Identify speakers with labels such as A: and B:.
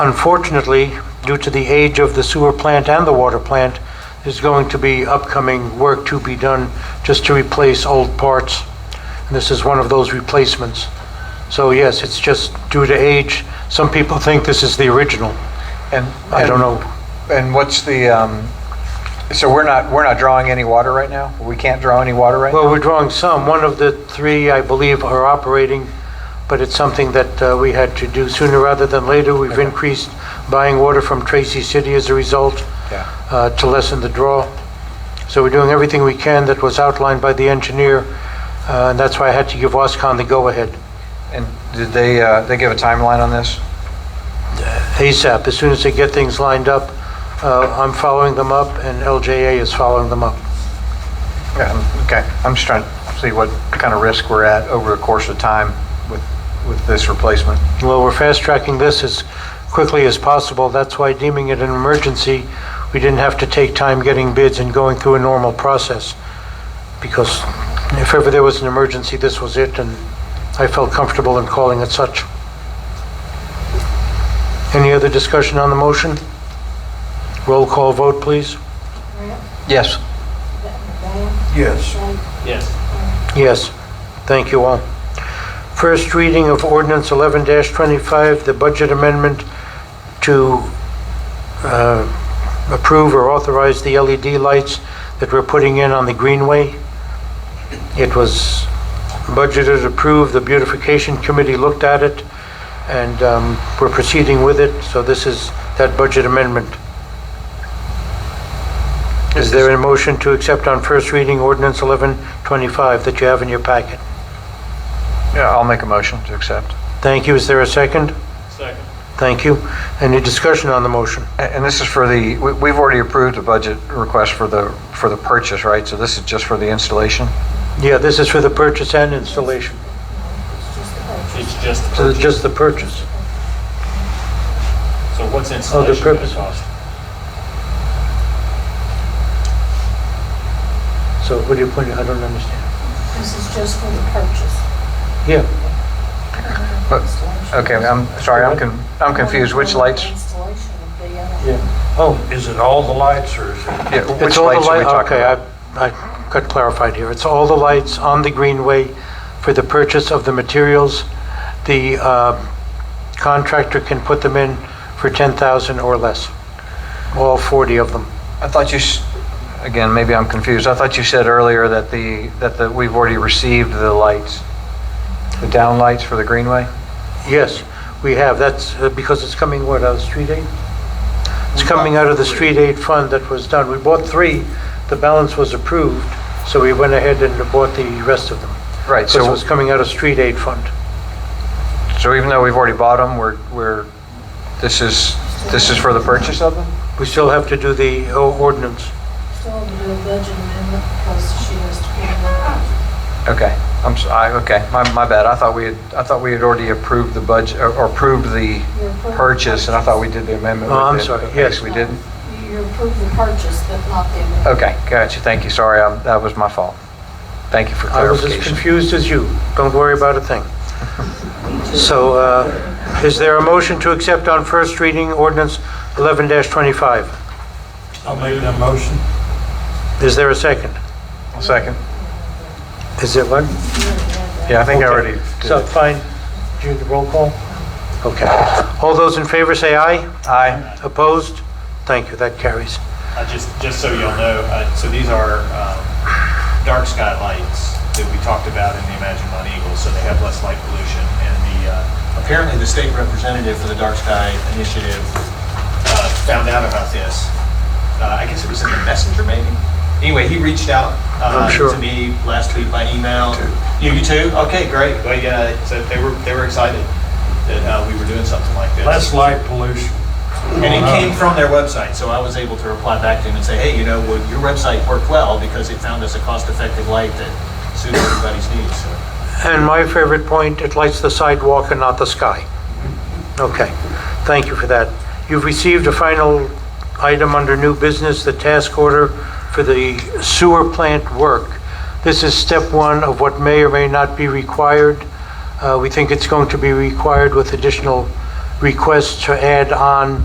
A: Unfortunately, due to the age of the sewer plant and the water plant, there's going to be upcoming work to be done just to replace old parts. And this is one of those replacements. So yes, it's just due to age. Some people think this is the original.
B: And,
A: I don't know.
B: And what's the, um, so we're not, we're not drawing any water right now? We can't draw any water right now?
A: Well, we're drawing some. One of the three, I believe, are operating, but it's something that uh, we had to do sooner rather than later. We've increased buying water from Tracy City as a result
B: Yeah.
A: uh, to lessen the draw. So we're doing everything we can that was outlined by the engineer, uh, and that's why I had to give Wascon the go-ahead
B: And did they, uh, they give a timeline on this?
A: ASAP. As soon as they get things lined up, uh, I'm following them up, and LJA is following them up.
B: Yeah, Um, Okay, I'm just trying to see what kind of risk we're at over the course of time with, with this replacement.
A: Well, we're fast-tracking this as quickly as possible. That's why deeming it an emergency, we didn't have to take time getting bids and going through a normal process. Because if ever there was an emergency, this was it, and I felt comfortable in calling it such. Any other discussion on the motion? Roll call vote, please.
B: Yes.
C: Yes.
A: Yes, thank you all. First reading of ordinance 11-25, the budget amendment to uh, approve or authorize the LED lights that we're putting in on the Greenway. It was budgeted, approved, the beautification committee looked at it, and um, we're proceeding with it, so this is that budget amendment. Is there a motion to accept on first reading ordinance 1125 that you have in your packet?
B: Yeah, I'll make a motion to accept.
A: Thank you. Is there a second?
C: Second.
A: Thank you. Any discussion on the motion?
B: A- And this is for the, we- we've already approved a budget request for the, for the purchase, right? So this is just for the installation?
A: Yeah, this is for the purchase and installation.
C: It's just the
A: So it's
C: purchase.
A: just the purchase.
C: So what's
D: Oh,
C: installation going
A: purpose.
C: to cost?
A: So what do you point, I don't understand.
E: This is just for the purchase.
A: Yeah,
B: But- Okay, I'm sorry, I'm con- I'm confused. Which lights?
E: Installation would be, uh,
A: yeah. Oh,
D: Is it all the lights or is it?
B: Yeah,
A: it's
B: which
A: all the
B: lights are we
A: light-
B: talking about?
A: Okay, I I got clarified here. It's all the lights on the greenway for the purchase of the materials. The um, contractor can put them in for 10,000 or less, all 40 of them.
B: I thought you, s- again, maybe I'm confused. I thought you said earlier that the, that the, we've already received the lights, the down lights for the greenway?
A: Yes, we have. That's uh, because it's coming, what, out of street aid? It's coming out of the street aid fund that was done. We bought three, the balance was approved, so we went ahead and bought the rest of them.
B: Right,
A: Because it
B: so,
A: was coming out of street aid fund.
B: so even though we've already bought them, we're, we're, this is, this is for the purchase of them?
A: We still have to do the o- ordinance.
E: still have to do a budget amendment because she has to put in the
B: Okay, I'm, s- I, okay, my, my bad. I thought we had, I thought we had already approved the budget, or or approved the
E: budget.
B: purchase, and I thought we did the amendment.
A: Oh,
B: with
A: I'm
B: it,
A: sorry,
B: but I
A: yes.
B: guess We didn't?
E: You approved the purchase, but not the amendment.
B: Okay, gotcha. Thank you. Sorry, I- that was my fault. Thank you for
A: I was as
B: clarification.
A: confused as you. Don't worry about a thing. So uh, is there a motion to accept on first reading ordinance 11-25?
D: I'll make that motion.
A: Is there a second?
B: Second.
A: Is it what?
B: Yeah, I think I
A: Okay.
B: already did
A: So,
B: it.
A: fine, do the roll call? Okay. All those in favor say aye.
B: Aye.
A: Opposed? Thank you, that carries.
C: I just, just so y'all know, uh, so these are um, dark sky lights that we talked about in the Imagine Mount Eagle, so they have less light pollution. And the, uh,
F: Apparently, the state representative for the Dark Sky Initiative
C: uh, found out about this,
F: uh, I guess it was in the messenger maybe. Anyway, he reached out uh,
A: I'm sure.
F: to me last week by email. You you too? Okay, great.
C: but yeah, so they were, they were excited that uh, we were doing something like this.
D: Less light pollution.
F: And it came from their website, so I was able to reply back to him and say, hey, you know, well, your website worked well because it found us a cost-effective light that suits everybody's needs. So
A: And my favorite point, it lights the sidewalk and not the sky. Okay, thank you for that. You've received a final item under new business, the task order for the sewer plant work. This is step one of what may or may not be required. Uh, We think it's going to be required with additional request to add on